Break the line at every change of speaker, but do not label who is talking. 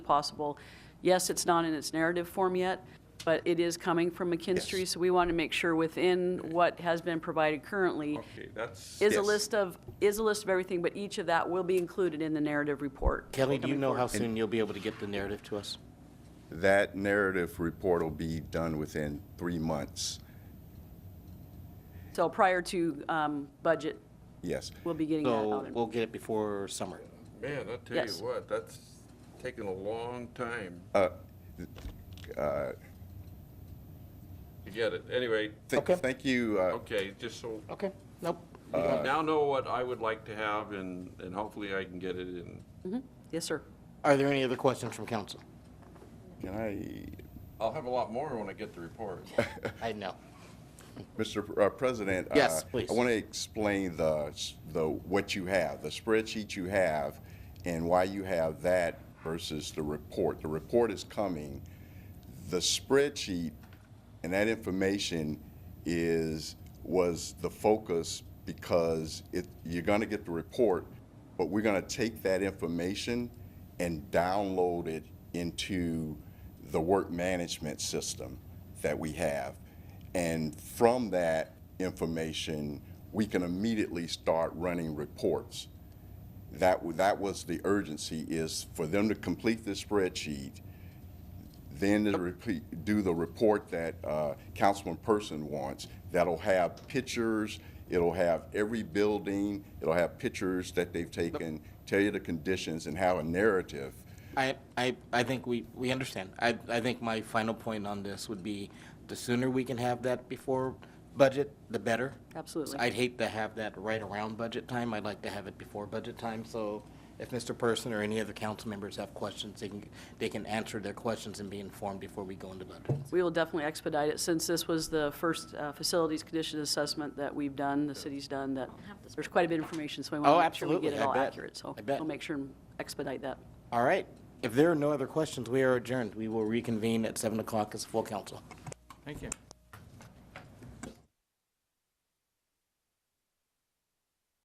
possible. Yes, it's not in its narrative form yet, but it is coming from McKinstry,
Yes.
so we want to make sure within what has been provided currently
Okay, that's.
is a
yes.
list of, is a list of everything, but each of that will be included in the narrative report.
Kelly, do you
coming
know how
forward.
soon you'll be able to get the narrative to us?
That narrative report will be done within three months,
So prior to um, budget,
yes.
we'll be getting that out.
So
in-
we'll get it before summer.
Man, I'll tell
Yes.
you what, that's taken a long time to get it. Anyway,
Th-
Okay.
Thank you, uh,
okay, just so,
Okay, nope.
now know what I would like to have and, and hopefully I can get it in.
Yes, sir.
Are there any other questions from council?
can I,
I'll have a lot more when I get the report.
I know.
Mr. Pr- uh, President? uh,
Yes, please.
I want to explain the, s- the, what you have, the spreadsheet you have, and why you have that versus the report. The report is coming. The spreadsheet and that information is, was the focus because it, you're going to get the report, but we're going to take that information and download it into the work management system that we have. And from that information, we can immediately start running reports. That, w- that was the urgency is for them to complete the spreadsheet then to repeat, do the report that uh, Councilman Person wants. That'll have pictures, it'll have every building, it'll have pictures that they've taken, tell you the conditions and have a narrative.
I, I, I think we, we understand. I, I think my final point on this would be, the sooner we can have that before budget, the better.
Absolutely.
I'd hate to have that right around budget time. I'd like to have it before budget time, so if Mr. Person or any other council members have questions, they can, they can answer their questions and be informed before we go into budget.
We will definitely expedite it, since this was the first uh, facilities condition assessment that we've done, the city's done, that there's quite a bit of information, so we
Oh,
want to make sure we get
absolutely,
it
I
all
bet.
accurate. So
I bet.
we'll make sure and expedite that.
All right. If there are no other questions, we are adjourned. We will reconvene at 7 o'clock as full council.
Thank you.